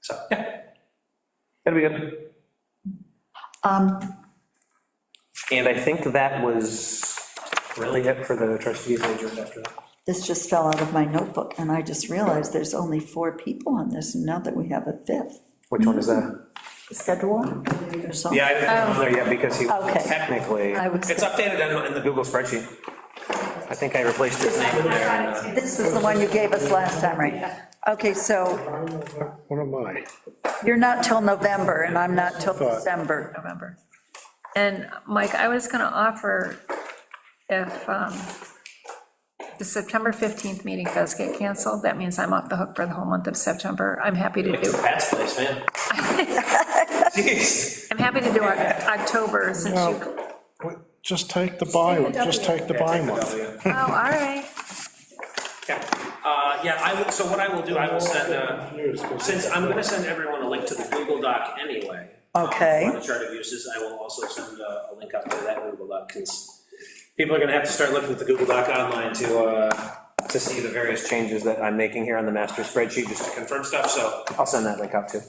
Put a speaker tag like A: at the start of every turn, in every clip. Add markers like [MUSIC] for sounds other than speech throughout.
A: So, yeah. That'll be good.
B: Um,
A: And I think that was really it for the trustees agent after that.
B: This just fell out of my notebook, and I just realized there's only four people on this, and now that we have a fifth.
A: Which one is that?
B: Schedule or something?
A: Yeah, I didn't put it on there yet because he
B: Oh. Okay.
A: technically,
B: I would
A: it's
B: say-
A: updated in- in the Google spreadsheet. I think I replaced his name in there. and, uh,
B: This is the one you gave us last time, right? Okay, so
C: What am I?
B: you're not till November, and I'm not till
C: Thought.
B: December.
D: November. And Mike, I was going to offer if um, the September 15th meeting does get canceled, that means I'm off the hook for the whole month of September. I'm happy to do,
A: Pat's place,
D: [LAUGHS]
A: man. Jeez.
D: I'm happy to do Oc- October since you,
C: No, w- Just take the buy one, just take the buy one.
D: oh, all right.
E: Yeah, Uh, yeah, I would, so what I will do, I will send, uh, since I'm gonna send everyone a link to the Google Doc anyway. um,
B: Okay.
E: For the chart of uses, I will also send
A: uh,
E: a, a link up to that Google Doc, because people are gonna have to start looking at the Google Doc online to, uh,
A: To see the various changes that I'm making here on the master spreadsheet, just to confirm,
E: confirm stuff, so.
A: I'll send that link out too.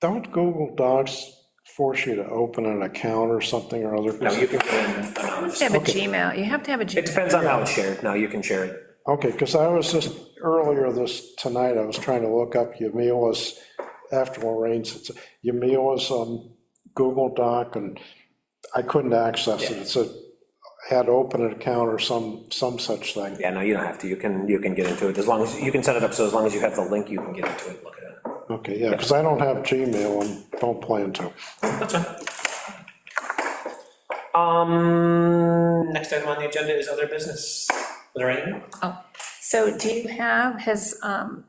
C: Don't Google Docs force you to open an account or something or other?
A: No, you can go in uh, anonymous.
D: You have to have a Gmail, you have to have a
A: It
D: Gmail.
A: depends on how it's shared. No, you can share it.
C: Okay, because I was just, earlier this, tonight, I was trying to look up Yamila's, after Lorraine's, it's- Yamila's um, Google Doc, and I couldn't access it. It said, had to open an account or some, some such thing.
A: Yeah, no, you don't have to. You can, you can get into it as long as, you can set it up so as long as you have the link, you can get into it, and look at it.
C: Okay, yeah, because I don't have Gmail and don't plan to.
A: Um,
E: Next item on the agenda is other business. Lorraine?
D: Oh. So do you have, has, um,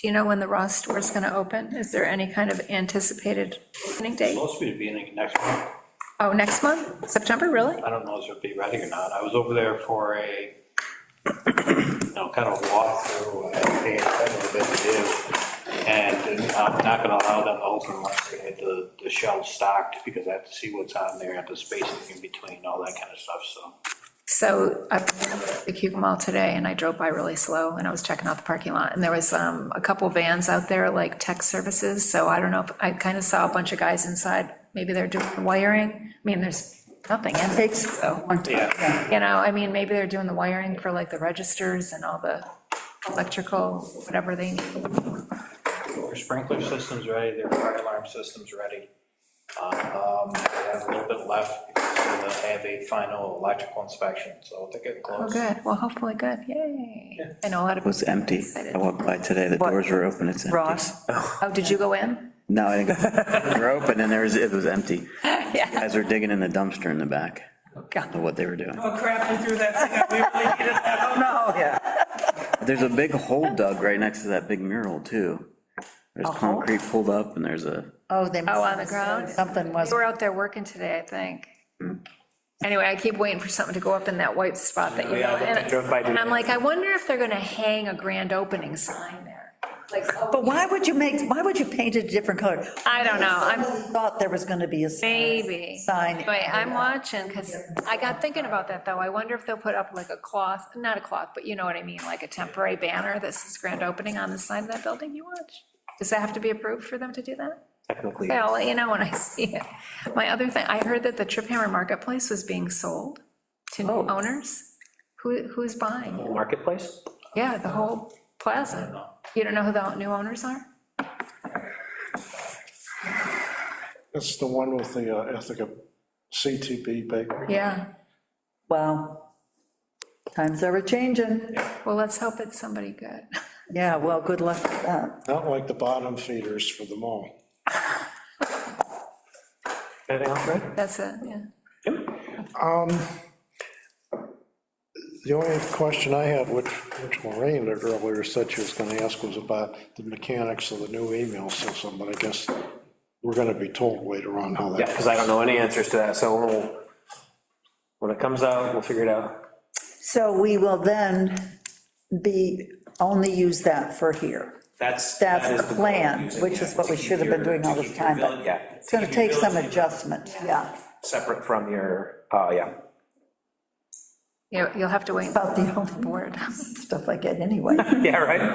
D: do you know when the Ross store is going to open? Is there any kind of anticipated opening date?
F: Supposed to be in next month.
D: Oh, next month, September, really?
F: I don't know if it'll be ready or not. I was over there for a, you know, kind of walkthrough, uh, they had a bit to do. And uh, I'm not gonna allow them to open unless they had the, the shelves stocked, because I have to see what's on there, have the spacing in between, all that kind of stuff, so.
D: So I was at the Cuba Mall today, and I drove by really slow, and I was checking out the parking lot, and there was um, a couple vans out there, like tech services, so I don't know, if I kind of saw a bunch of guys inside, maybe they're doing wiring, I mean, there's nothing in it,
B: Takes a
D: so,
B: long time.
D: you know, I mean, maybe they're doing the wiring for like the registers and all the electrical, whatever they need.
F: Their sprinkler system's ready, their fire alarm system's ready. Um, they have a little bit left, because they have a final electrical inspection, so they're getting
D: Oh,
F: close.
D: good, well, hopefully good, yay. I know a lot of.
G: It was empty. I walked by today, the
B: What?
G: doors were open, it's empty.
B: Ross,
D: Oh, did you go in?
G: No, I didn't, they were open and there was, it
B: [LAUGHS]
G: was empty.
D: Yeah.
G: Guys were digging in the dumpster in the back,
D: God.
G: of what they were doing.
E: Oh crap, I threw that thing up, we really needed that. Oh
B: [LAUGHS]
E: no.
G: There's a big hole dug right next to that big mural, too. There's concrete pulled up and there's a,
B: oh, they.
D: Oh, on the ground?
B: Something was,
D: They were out there working today, I think. Anyway, I keep waiting for something to go up in that white spot that you
A: Yeah,
D: know.
A: I looked- I drove
D: And
A: by
D: and
A: today.
D: I'm like, I wonder if they're gonna hang a grand opening sign there. Like,
B: but
D: oh,
B: why would you make, why would you paint it a different color?
D: I don't know, I'm,
B: I thought there was gonna be a sign.
D: maybe.
B: Sign.
D: Anyway, I'm watching, because I got thinking about that, though. I wonder if they'll put up like a cloth, not a cloth, but you know what I mean, like a temporary banner that says grand opening on the side of that building you watch. Does that have to be approved for them to do that?
A: technically,
D: Yeah, I'll let you know when I see it. My other thing, I heard that the Trip Hammer Marketplace was being sold to new owners. Who, who's buying?
A: marketplace?
D: Yeah, the whole plaza. You don't know who the new owners are?
C: That's the one with the, uh, I think, a CTB bakery.
D: Yeah,
B: Wow. Times ever changing.
D: well, let's hope it's somebody good.
B: Yeah, well, good luck uh, with that.
C: Not like the bottom feeders for the mall.
A: Anything else, Ray?
D: That's it, yeah.
C: The only question I had, which, which Lorraine had earlier said she was gonna ask, was about the mechanics of the new email system, but I guess we're gonna be told later on how
A: Yeah,
C: that,
A: because I don't know any answers to that, so we'll, when it comes out, we'll figure it out.
B: So we will then be, only use that for here.
E: That's.
B: That's
E: that is
B: the plan,
E: goal,
B: which is what we
E: to keep
B: should have been
E: your-
B: doing
E: to
B: all this
E: keep your
B: time, but-
E: village-
A: Yeah.
B: It's gonna
E: keep your
B: take some
E: village-
B: adjustment, yeah.
A: Separate from your, uh, yeah.
D: You- You'll have to wait.
B: About the only
D: board.
B: Stuff I get anyway. [LAUGHS]
A: Yeah, right?